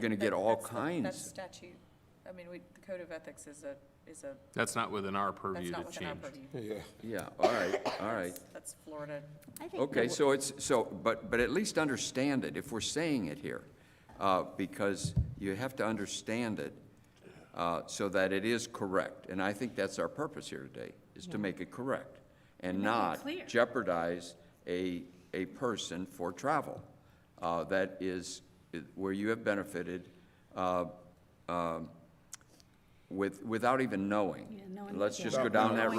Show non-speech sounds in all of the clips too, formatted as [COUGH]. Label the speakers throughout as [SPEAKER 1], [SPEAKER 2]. [SPEAKER 1] Going to get
[SPEAKER 2] That-
[SPEAKER 1] all
[SPEAKER 2] that's the- That's
[SPEAKER 1] kinds.
[SPEAKER 2] statute. I mean, we, the code of ethics is a, is a,
[SPEAKER 3] That's not within our
[SPEAKER 2] that's
[SPEAKER 3] purview
[SPEAKER 2] not
[SPEAKER 3] to
[SPEAKER 2] within our
[SPEAKER 3] change.
[SPEAKER 2] purview.
[SPEAKER 1] Yeah, all right, all right.
[SPEAKER 2] That's Florida.
[SPEAKER 4] I think
[SPEAKER 1] Okay,
[SPEAKER 4] the-
[SPEAKER 1] so it's, so, but, but at least understand it, if we're saying it here, uh, because you have to understand it uh, so that it is correct. And I think that's our purpose here today, is to make it correct and not
[SPEAKER 4] clear.
[SPEAKER 1] jeopardize a, a person for travel uh, that is, where you have benefited uh, um, with, without even knowing.
[SPEAKER 4] Yeah, knowing-
[SPEAKER 1] Let's just
[SPEAKER 4] yeah.
[SPEAKER 1] go down that
[SPEAKER 4] Knowingly.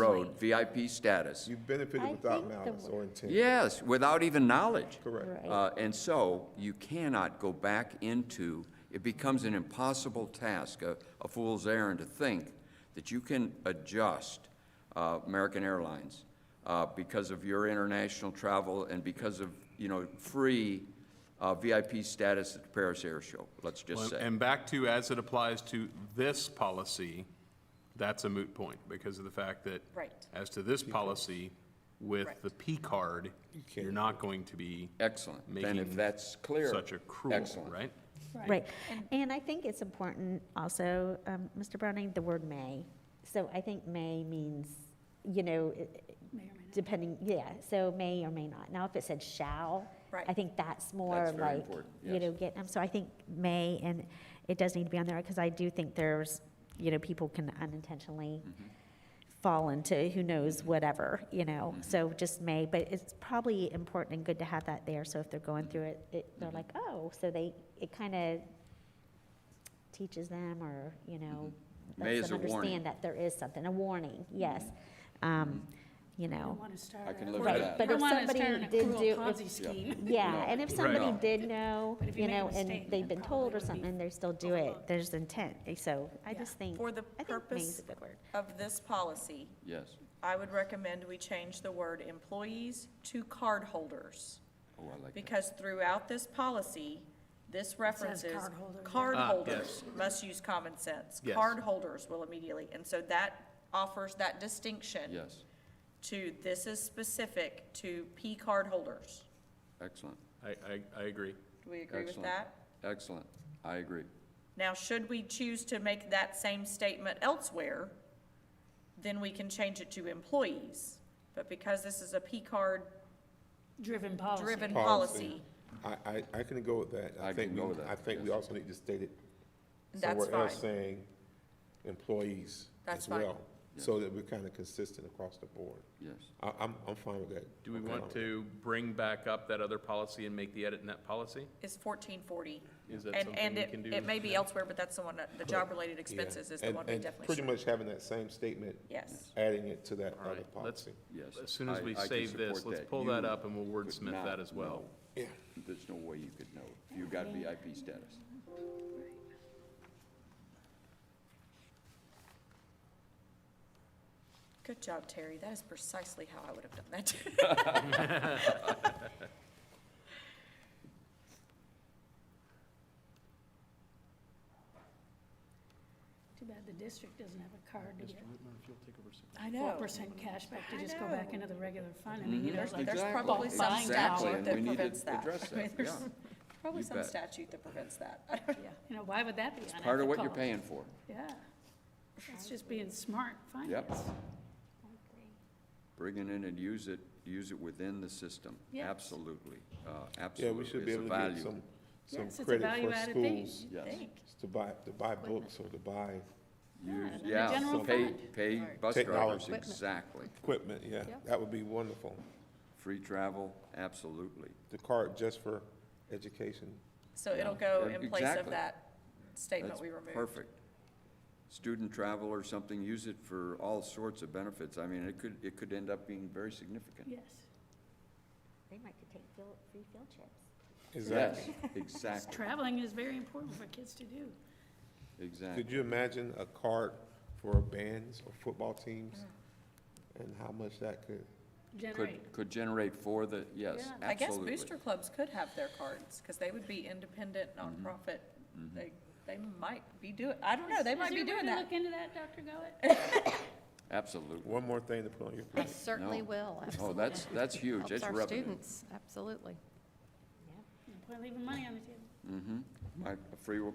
[SPEAKER 1] road, VIP status.
[SPEAKER 5] You
[SPEAKER 4] I
[SPEAKER 5] benefited
[SPEAKER 4] think
[SPEAKER 5] without
[SPEAKER 4] the
[SPEAKER 5] malice
[SPEAKER 4] wo-
[SPEAKER 5] or intent.
[SPEAKER 1] Yes, without even knowledge.
[SPEAKER 5] Correct.
[SPEAKER 4] Right.
[SPEAKER 1] Uh, And so you cannot go back into, it becomes an impossible task, a a fool's errand to think that you can adjust uh, American Airlines uh, because of your international travel and because of, you know, free uh, VIP status at the Paris Air Show, let's just
[SPEAKER 3] Well,
[SPEAKER 1] say.
[SPEAKER 3] And back to, as it applies to this policy, that's a moot point because of the fact that.
[SPEAKER 2] Right.
[SPEAKER 3] As to this policy, with the P card, you're not going to be
[SPEAKER 1] Excellent. Then if
[SPEAKER 3] Making
[SPEAKER 1] that's clear.
[SPEAKER 3] such a cruel,
[SPEAKER 1] Excellent.
[SPEAKER 3] right?
[SPEAKER 4] Right. And I think it's important also, um, Mr. Browning, the word may. So I think may means, you know, i- depending, yeah, so may or may not. Now, if it said shall, I
[SPEAKER 2] Right.
[SPEAKER 4] think that's more
[SPEAKER 1] That's very
[SPEAKER 4] like,
[SPEAKER 1] important,
[SPEAKER 4] you know,
[SPEAKER 1] yes.
[SPEAKER 4] get, um, so I think may, and it does need to be on there, because I do think there's, you know, people can unintentionally
[SPEAKER 1] Mm-hmm.
[SPEAKER 4] fall into who knows whatever, you know,
[SPEAKER 1] Mm-hmm.
[SPEAKER 4] so just may, but it's probably important and good to have that there, so if they're going
[SPEAKER 1] Mm-hmm.
[SPEAKER 4] through it, it, they're like, oh, so they, it kind of teaches them or, you know,
[SPEAKER 1] Mm-hmm. May
[SPEAKER 4] lets
[SPEAKER 1] is a warning.
[SPEAKER 4] them
[SPEAKER 1] Mm-hmm.
[SPEAKER 4] understand that there is something, a warning, yes. Um, you know,
[SPEAKER 1] I can live with
[SPEAKER 4] right,
[SPEAKER 1] that.
[SPEAKER 4] but if somebody did do, if-
[SPEAKER 6] scheme.
[SPEAKER 4] yeah,
[SPEAKER 1] No.
[SPEAKER 4] and if
[SPEAKER 1] Right.
[SPEAKER 4] somebody
[SPEAKER 1] No.
[SPEAKER 4] did know,
[SPEAKER 6] But if you
[SPEAKER 4] you
[SPEAKER 6] make a
[SPEAKER 4] know, and
[SPEAKER 6] mistake,
[SPEAKER 4] they've
[SPEAKER 6] it
[SPEAKER 4] been
[SPEAKER 6] probably
[SPEAKER 4] told or
[SPEAKER 6] would be
[SPEAKER 4] something, they still do it,
[SPEAKER 6] overlooked.
[SPEAKER 4] there's intent, so I
[SPEAKER 6] Yeah.
[SPEAKER 4] just think,
[SPEAKER 2] For the
[SPEAKER 4] I think may is
[SPEAKER 2] purpose
[SPEAKER 4] a good word.
[SPEAKER 2] of this policy,
[SPEAKER 1] Yes,
[SPEAKER 2] I would recommend we change the word employees to cardholders.
[SPEAKER 1] oh, I like that.
[SPEAKER 2] Because throughout this policy, this references
[SPEAKER 6] cardholder, yeah.
[SPEAKER 2] cardholders must use common sense.
[SPEAKER 3] Ah, Yes.
[SPEAKER 2] Cardholders will immediately, and so that offers that distinction
[SPEAKER 1] Yes,
[SPEAKER 2] to, this is specific to P cardholders.
[SPEAKER 1] excellent,
[SPEAKER 3] I, I, I agree.
[SPEAKER 2] Do we agree with
[SPEAKER 1] excellent.
[SPEAKER 2] that?
[SPEAKER 1] Excellent, I agree.
[SPEAKER 2] Now, should we choose to make that same statement elsewhere, then we can change it to employees. But because this is a P card
[SPEAKER 6] Driven policy.
[SPEAKER 2] driven policy,
[SPEAKER 5] I, I, I can go with that.
[SPEAKER 1] I
[SPEAKER 5] think
[SPEAKER 1] can go
[SPEAKER 5] we-
[SPEAKER 1] with that,
[SPEAKER 5] I think we
[SPEAKER 1] yes.
[SPEAKER 5] also need to state it
[SPEAKER 2] that's
[SPEAKER 5] somewhere
[SPEAKER 2] fine.
[SPEAKER 5] else saying employees
[SPEAKER 2] That's
[SPEAKER 5] as
[SPEAKER 2] fine.
[SPEAKER 5] well. So that we're kind of consistent across the board.
[SPEAKER 1] Yes,
[SPEAKER 5] I, I'm, I'm fine with that.
[SPEAKER 3] Do we
[SPEAKER 5] I'm
[SPEAKER 3] want
[SPEAKER 5] fine
[SPEAKER 3] to bring back up that other policy and make the edit in that policy?
[SPEAKER 2] Is fourteen forty.
[SPEAKER 3] Is that
[SPEAKER 2] And,
[SPEAKER 3] something
[SPEAKER 2] and
[SPEAKER 3] we
[SPEAKER 2] it,
[SPEAKER 3] can do?
[SPEAKER 2] it may be elsewhere, but that's the one, that- the job-related
[SPEAKER 5] with that. Yeah.
[SPEAKER 2] expenses is the
[SPEAKER 5] And-
[SPEAKER 2] one we
[SPEAKER 5] and
[SPEAKER 2] definitely
[SPEAKER 5] Pretty
[SPEAKER 2] should.
[SPEAKER 5] much having that same statement,
[SPEAKER 2] Yes,
[SPEAKER 5] adding it to that
[SPEAKER 3] All
[SPEAKER 5] other
[SPEAKER 3] right, let's-
[SPEAKER 5] policy.
[SPEAKER 1] yes.
[SPEAKER 3] As soon as
[SPEAKER 1] I-
[SPEAKER 3] we
[SPEAKER 1] I can
[SPEAKER 3] save this,
[SPEAKER 1] support
[SPEAKER 3] let's
[SPEAKER 1] that.
[SPEAKER 3] pull that
[SPEAKER 1] You
[SPEAKER 3] up and we'll
[SPEAKER 1] could
[SPEAKER 3] wordsmith
[SPEAKER 1] not
[SPEAKER 3] that as well.
[SPEAKER 1] know. There's no way you could know. if You got VIP status.
[SPEAKER 2] good job, Terry, that is precisely how I would have done that.
[SPEAKER 6] Too bad the district doesn't have a card to get
[SPEAKER 2] [LAUGHS] I
[SPEAKER 6] four
[SPEAKER 2] know.
[SPEAKER 6] percent cash back to just go
[SPEAKER 2] I
[SPEAKER 6] back
[SPEAKER 2] know.
[SPEAKER 6] into the regular fund. I mean, you know,
[SPEAKER 2] There's,
[SPEAKER 6] like,
[SPEAKER 2] there's
[SPEAKER 1] Mm-hmm. Exactly.
[SPEAKER 2] probably some
[SPEAKER 6] Buying power.
[SPEAKER 2] statute
[SPEAKER 1] Exactly,
[SPEAKER 2] that
[SPEAKER 1] and we need to
[SPEAKER 2] prevents that.
[SPEAKER 1] address
[SPEAKER 2] I mean,
[SPEAKER 1] that,
[SPEAKER 2] there's
[SPEAKER 1] yeah.
[SPEAKER 2] Probably
[SPEAKER 1] You
[SPEAKER 2] some
[SPEAKER 1] bet.
[SPEAKER 2] statute that prevents that. I don't-
[SPEAKER 6] yeah, you know, why would that be unethical?
[SPEAKER 1] Part of what you're paying for.
[SPEAKER 6] Yeah, it's just being smart
[SPEAKER 1] Yep.
[SPEAKER 6] finance.
[SPEAKER 1] Bring it in and use it, use it within the system.
[SPEAKER 6] Yeah.
[SPEAKER 1] Absolutely, uh,
[SPEAKER 5] Yeah,
[SPEAKER 1] absolutely.
[SPEAKER 5] we should
[SPEAKER 1] It's
[SPEAKER 5] be
[SPEAKER 1] a
[SPEAKER 5] able to
[SPEAKER 1] value.
[SPEAKER 5] get some, some
[SPEAKER 6] Yes, it's a
[SPEAKER 5] credit for
[SPEAKER 6] value-added thing.
[SPEAKER 5] schools
[SPEAKER 2] you
[SPEAKER 1] Yes.
[SPEAKER 2] think.
[SPEAKER 5] to buy, to buy books or to buy
[SPEAKER 1] Use-
[SPEAKER 6] in the
[SPEAKER 1] Yeah,
[SPEAKER 6] general
[SPEAKER 1] pay,
[SPEAKER 6] fund.
[SPEAKER 1] pay bus drivers,
[SPEAKER 5] Technology.
[SPEAKER 1] exactly.
[SPEAKER 5] equipment, yeah.
[SPEAKER 6] Yep.
[SPEAKER 5] That would be wonderful.
[SPEAKER 1] Free travel, absolutely.
[SPEAKER 5] The card just for education.
[SPEAKER 2] So it'll
[SPEAKER 1] Yeah.
[SPEAKER 2] go
[SPEAKER 1] Yeah,
[SPEAKER 2] in place of
[SPEAKER 1] exactly.
[SPEAKER 2] that statement
[SPEAKER 1] That's
[SPEAKER 2] we removed.
[SPEAKER 1] perfect. Student travel or something, use it for all sorts of benefits. I mean, it could, it could end up being very significant.
[SPEAKER 6] Yes,
[SPEAKER 4] They might could take field, free field trips.
[SPEAKER 1] Yes,
[SPEAKER 5] Exactly.
[SPEAKER 6] Because
[SPEAKER 1] exactly,
[SPEAKER 6] traveling is very important for kids to do.
[SPEAKER 1] exactly.
[SPEAKER 5] Could you imagine a card for bands or football teams? And how much that could,
[SPEAKER 6] Generate,
[SPEAKER 1] Could, could generate for the, yes,
[SPEAKER 6] Yeah.
[SPEAKER 2] I guess
[SPEAKER 1] absolutely.
[SPEAKER 2] booster clubs could have their cards, because they would be independent, nonprofit. They, they might be doing, I don't know, they
[SPEAKER 6] Is-
[SPEAKER 2] might be
[SPEAKER 6] Is there a
[SPEAKER 2] doing
[SPEAKER 6] way to
[SPEAKER 2] that.
[SPEAKER 6] look into that, Dr. Goet?
[SPEAKER 1] Absolutely.
[SPEAKER 5] one more thing to put on your
[SPEAKER 7] I
[SPEAKER 5] plate.
[SPEAKER 7] certainly
[SPEAKER 1] No.
[SPEAKER 7] will,
[SPEAKER 1] Oh,
[SPEAKER 7] absolutely.
[SPEAKER 1] that's, that's huge. That's
[SPEAKER 7] Helps our
[SPEAKER 1] revenue.
[SPEAKER 7] students, absolutely.
[SPEAKER 6] Quit leaving money on the table.
[SPEAKER 1] My, free,